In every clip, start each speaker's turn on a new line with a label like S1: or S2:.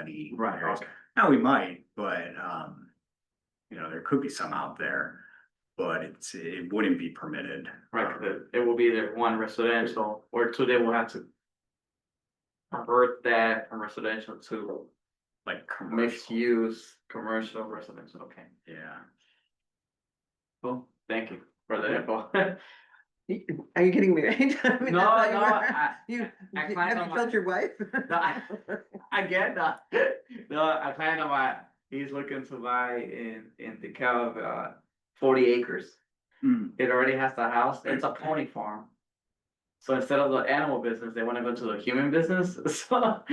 S1: any.
S2: Right,
S1: areas.
S2: okay.
S1: Now, we might, but, um, you know, there could be some out there, but it's, it wouldn't be permitted. um,
S2: Right, 'cause it- it will be the one residential or two, they will have to. Convert that from residential to
S1: Like
S2: mixed
S1: commercial,
S2: use, commercial residential, okay,
S1: yeah.
S2: cool, thank you for the info. No,
S3: Are you kidding me? right? I mean,
S2: no,
S3: I thought you
S2: I,
S3: were- You,
S2: I
S3: you-
S2: climbed
S3: have
S2: on
S3: you
S2: my-
S3: told your wife? Uh-huh.
S2: no, I, I get that, no, I plan on my, he's looking to buy in, in the cow of, uh, forty acres.
S1: Hmm,
S2: It already has the house, it's a pony farm. So instead of the animal business, they wanna go to the human business, so,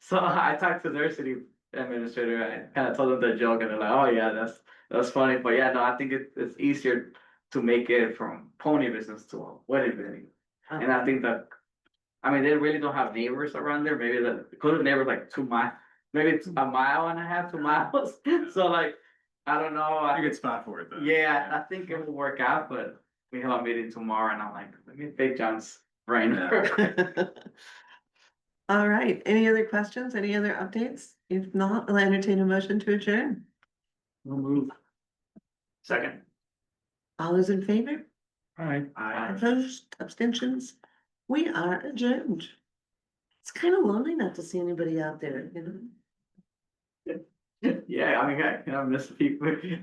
S2: so I talked to their city administrator, I kinda told them the joke, and they're like, oh yeah, that's, that's funny, but yeah, no, I think it, it's easier. To make it from pony business to a wedding venue, and I think that, I mean, they really don't have neighbors around there, maybe the, close neighbors like two mi, maybe it's a mile and a half, two miles, so like, I don't know.
S1: I think it's spot for it though.
S2: Yeah, I think it will work out, but we have a meeting tomorrow and I'm like, let me pick John's brain.
S3: All right, any other questions, any other updates? If not, I'll entertain a motion to adjourn.
S2: Second.
S3: All those in favor,
S2: Alright.
S1: I,
S3: opposed, abstentions? We are adjourned. It's kind of lonely not to see anybody out there, you know?
S2: Yeah, I mean, I, I miss people.